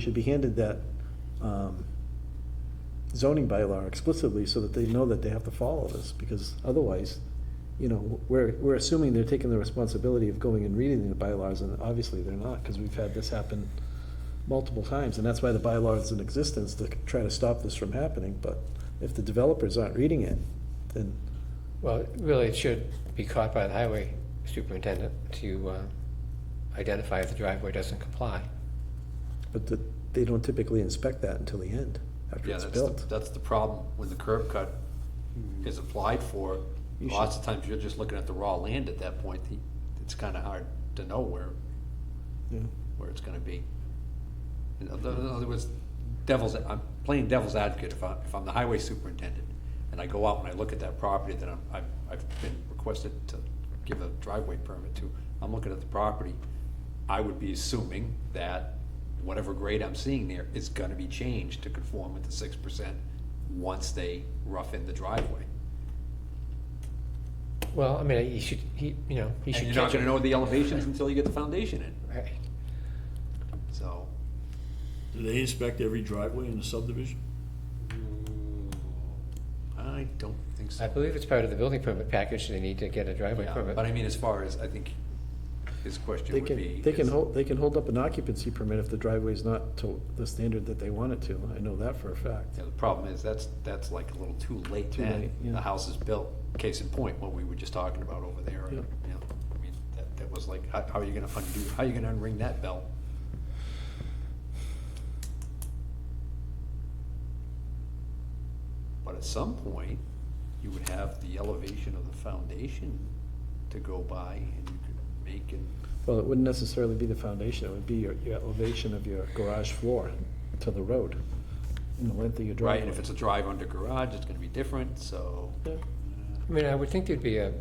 should be handed that um, zoning bylaw explicitly so that they know that they have to follow this, because otherwise, you know, we're, we're assuming they're taking the responsibility of going and reading the bylaws, and obviously they're not, because we've had this happen multiple times, and that's why the bylaw is in existence, to try to stop this from happening, but if the developers aren't reading it, then, Well, really, it should be caught by the highway superintendent to uh, identify if the driveway doesn't comply. but the- they don't typically inspect that until the end, after Yeah, it's that's the, built. Hmm. that's the problem when the curb cut is applied for. You Lots of times you're just looking at the raw land at that point. The- It's kind of hard to know where, Yeah. where it's gonna be. In other in other words, devil's, I'm playing devil's advocate. If I, if I'm the highway superintendent and I go out and I look at that property that I'm, I've, I've been requested to give a driveway permit to, I'm looking at the property, I would be assuming that whatever grade I'm seeing there is gonna be changed to conform with the six percent once they rough in the driveway. Well, I mean, he should, he, you know, he And should you're not catch gonna it. know the elevations until you get the foundation in, Right. so. Do they inspect every driveway in the subdivision? I don't think so. I believe it's part of the building permit package, they need to get a driveway Yeah, permit. But I mean, as far as, I think his question They would be. can, they can is- hold, they can hold up an occupancy permit if the driveway's not to the standard that they want it to, I know that for a fact. Yeah, The problem is, that's, that's like a little too late Too late, then. yeah. The house is built, case in point, what we were just talking about over there. Yeah. You know, I mean, that, that was like, how, how are you gonna undo, how are you gonna unring that bell? But at some point, you would have the elevation of the foundation to go by and you could make an Well, it wouldn't necessarily be the foundation, it would be your, your elevation of your garage floor to the road, and the length of your driveway. Right, and if it's a drive under garage, it's gonna be different, so. Yeah. I mean, I would think there'd be a,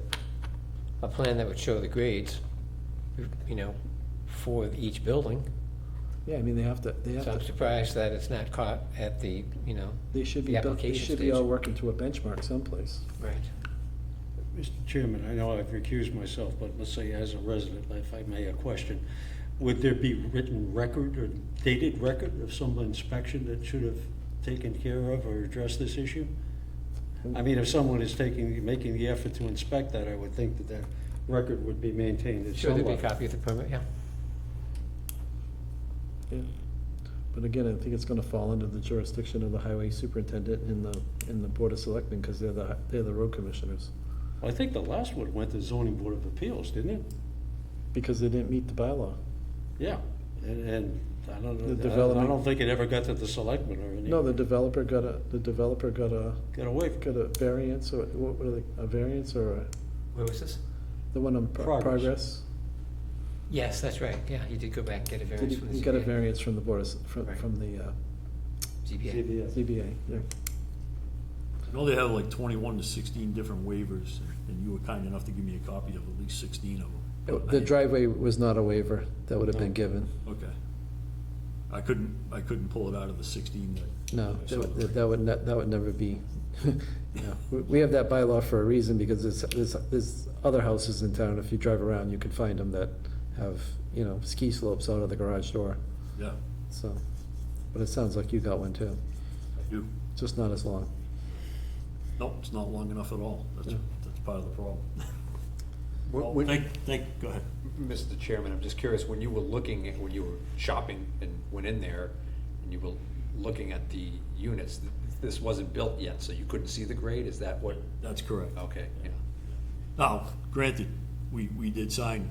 a plan that would show the grades, you know, for each building. Yeah, I mean, they have to, they have So I'm to, surprised that it's not caught at the, you know. they should be, The done- they application should be all stage. working to a benchmark someplace. Right. Mr. Chairman, I know I've recused myself, but let's say as a resident, if I may, a question. Would there be written record or dated record of some inspection that should have taken care of or addressed this issue? I mean, if someone is taking, making the effort to inspect that, I would think that that record would be maintained at Sure, some there'd be a level. copy of the permit, yeah. Yeah. But again, I think it's gonna fall under the jurisdiction of the highway superintendent and the, and the board of selectmen, because they're the, they're the road commissioners, I think the last one went to zoning board of appeals, didn't it? because they didn't meet the bylaw. Yeah, and, and I don't The know, I development- don't think it ever got to the selectmen or any. No, the developer got a, the developer got a, Got away from got a variance, or what were they, a variance or a, Where was this? the one on pro- Progress. progress? Yes, that's right, yeah, he did go back and get a Did variance you from the you got a ZBA. variance from the board, of s- from, Right. from the uh, ZBA. CBS. ZBA, yeah. I know they have like twenty-one to sixteen different waivers, and you were kind enough to give me a copy of at least sixteen of them. Oh, The driveway was not a waiver that would have been No. given, Okay. I couldn't, I couldn't pull it out of the sixteen that. no, I that saw. would- that would, ne- that would never be. no. We- We have that bylaw for a reason, because there's, there's, there's other houses in town, if you drive around, you can find them that have, you know, ski slopes out of the garage door, Yeah, so, but it sounds like you got one too, I do. just not as long. Nope, it's not long enough at all. That's, Yeah. that's part of the problem. When- Well, when- Thank, thank, go ahead. Mr. Chairman, I'm just curious, when you were looking, at when you were shopping and went in there, and you were looking at the units, th- this wasn't built yet, so you couldn't see the grade, is that what? That's correct. Okay, yeah. Now, granted, we, we did sign,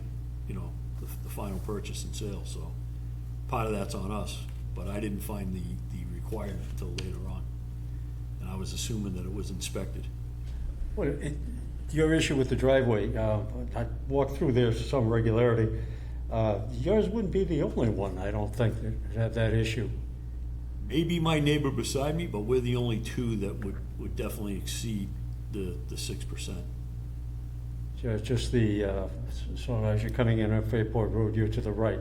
you know, the, the final purchase and sale, so part of that's on us, but I didn't find the, the requirement until later on. And I was assuming that it was inspected. Well, it, your issue with the driveway, uh, I walked through there with some regularity. Uh, yours wouldn't be the only one, I don't think, that had that issue. Maybe my neighbor beside me, but we're the only two that would, would definitely exceed the, the six percent. Ju- Just the, uh, s- so as you're coming in on Fairport Road, you're to the right.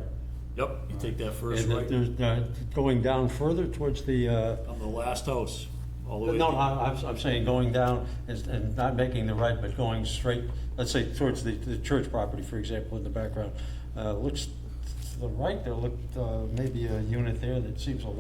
Yep, you take that first And right, there's, uh, going down further towards the, uh, on the last house, all the way. no, I- I'm, I'm saying going down is, and not making the right, but going straight, let's say towards the, the church property, for example, in the background. Uh, looks to the right, there looked, uh, maybe a unit there that seems a little